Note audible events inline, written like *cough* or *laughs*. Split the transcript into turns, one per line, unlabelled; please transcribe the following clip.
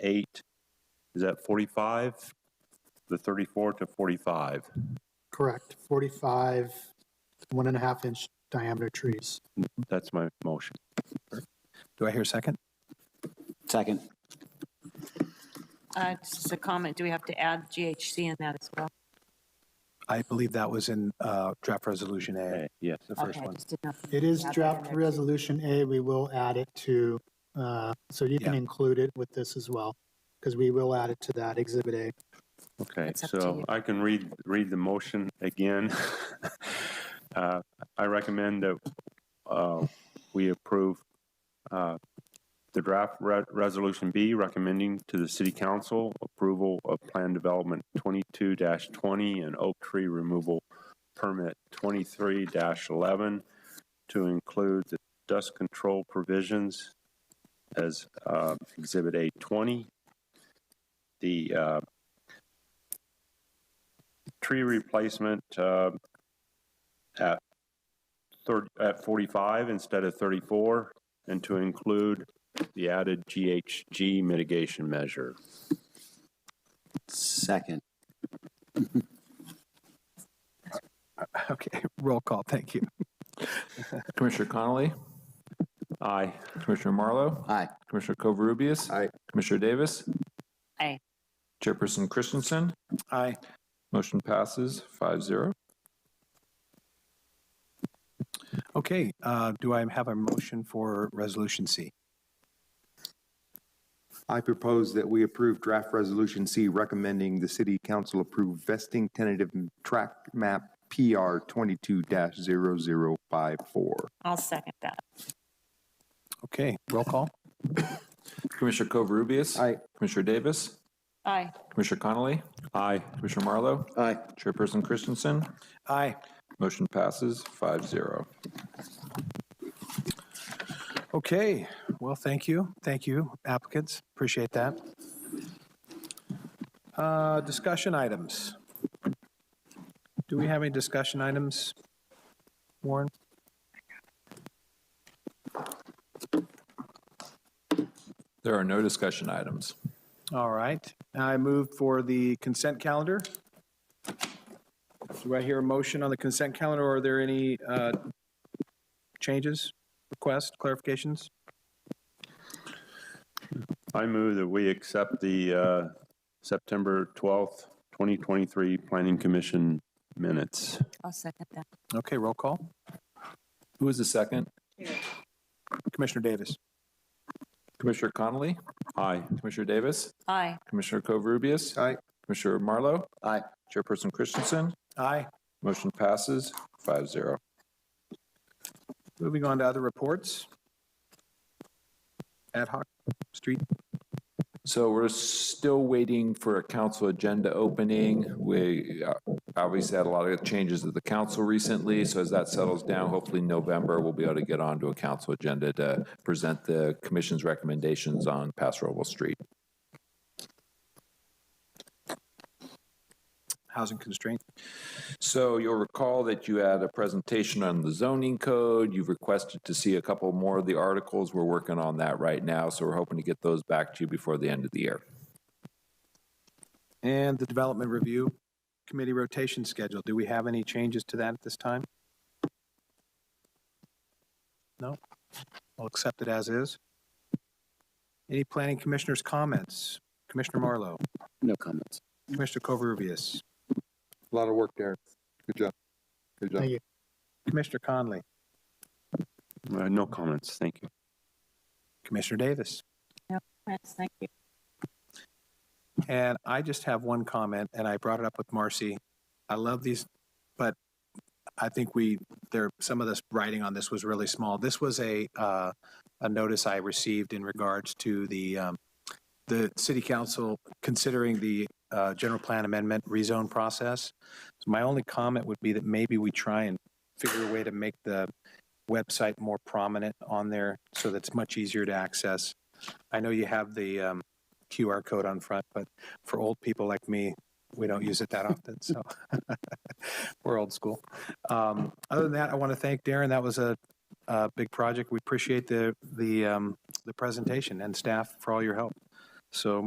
eight, is that 45? The 34 to 45.
Correct, 45, one and a half inch diameter trees.
That's my motion.
Do I hear a second?
Second.
Uh, Just a comment, do we have to add GHC in that as well?
I believe that was in uh, draft resolution
Okay,
A,
Yes.
the first
Okay, I
one. *laughs*
just didn't know. if we
It is
had that in
draft
there, too.
resolution A, we will add it to, uh, so you can
Yeah.
include it with this as well, because we will add it to that exhibit A.
Okay,
It's up to
so
you.
I can read, read the motion again. *laughs* Uh, I recommend that uh, we approve uh, the draft re- Resolution B recommending to the City Council approval of Plan Development 22-20 and Oak Tree Removal Permit 23-11 to include the dust control provisions as uh, Exhibit A20. The uh, tree replacement uh, at third at 45 instead of 34, and to include the added GHG mitigation measure.
Second.
Okay, roll call, thank you.
Commissioner Connolly,
Aye.
Commissioner Marlowe,
Aye.
Commissioner Covarubias.
Aye.
Commissioner Davis.
Aye.
Chairperson Christensen,
Aye.
motion passes five zero.
Okay, uh, do I have a motion for resolution C?
I propose that we approve draft resolution C recommending the city council approve vesting tentative track map PR 22-0054.
I'll second that.
Okay, roll call.
Commissioner Covarubias.
Aye.
Commissioner Davis.
Aye,
Commissioner Connolly,
Aye.
Commissioner Marlowe,
Aye.
Chairperson Christensen,
Aye.
motion passes five zero.
Okay, well, thank you. Thank you, applicants. Appreciate that. Uh, Discussion items. Do we have any discussion items, Warren?
There are no discussion items.
All right, I move for the consent calendar. Do I hear a motion on the consent calendar, or are there any uh, changes, requests, clarifications?
I move that we accept the uh, September 12th, 2023 Planning Commission minutes.
I'll second that.
Okay, roll call.
Who is the second?
Commissioner Davis.
Commissioner Connolly,
Aye.
Commissioner Davis,
Aye,
Commissioner Covarubias.
Aye.
Commissioner Marlowe,
Aye.
Chairperson Christensen,
Aye.
motion passes five zero.
Moving on to other reports. Ad hoc street.
So we're still waiting for a council agenda opening. We uh, obviously had a lot of changes at the council recently, so as that settles down, hopefully November, we'll be able to get onto a council agenda to present the commission's recommendations on Pass Roble Street.
housing constraint.
So you'll recall that you had a presentation on the zoning code. You've requested to see a couple more of the articles. We're working on that right now, so we're hoping to get those back to you before the end of the year.
And the development review committee rotation schedule. Do we have any changes to that at this time? No? I'll accept it as is. Any planning commissioners' comments? Commissioner Marlowe,
No comments.
Commissioner Covarrubias,
A lot of work there. Good job. Good job.
Thank you.
Commissioner Conley,
Uh, No comments, thank you.
Commissioner Davis.
yes, thank you.
And I just have one comment, and I brought it up with Marcy. I love these, but I think we, there, some of this writing on this was really small. This was a, uh, a notice I received in regards to the, um, the city council considering the, uh, general plan amendment rezone process. So my only comment would be that maybe we try and figure a way to make the website more prominent on there so that's much easier to access. I know you have the, um, QR code on front, but for old people like me, we don't use it that often. So *laughs* we're old school. Um, other than that, I want to thank Darren. That was a, a big project. We appreciate the the um, the presentation and staff for all your help. So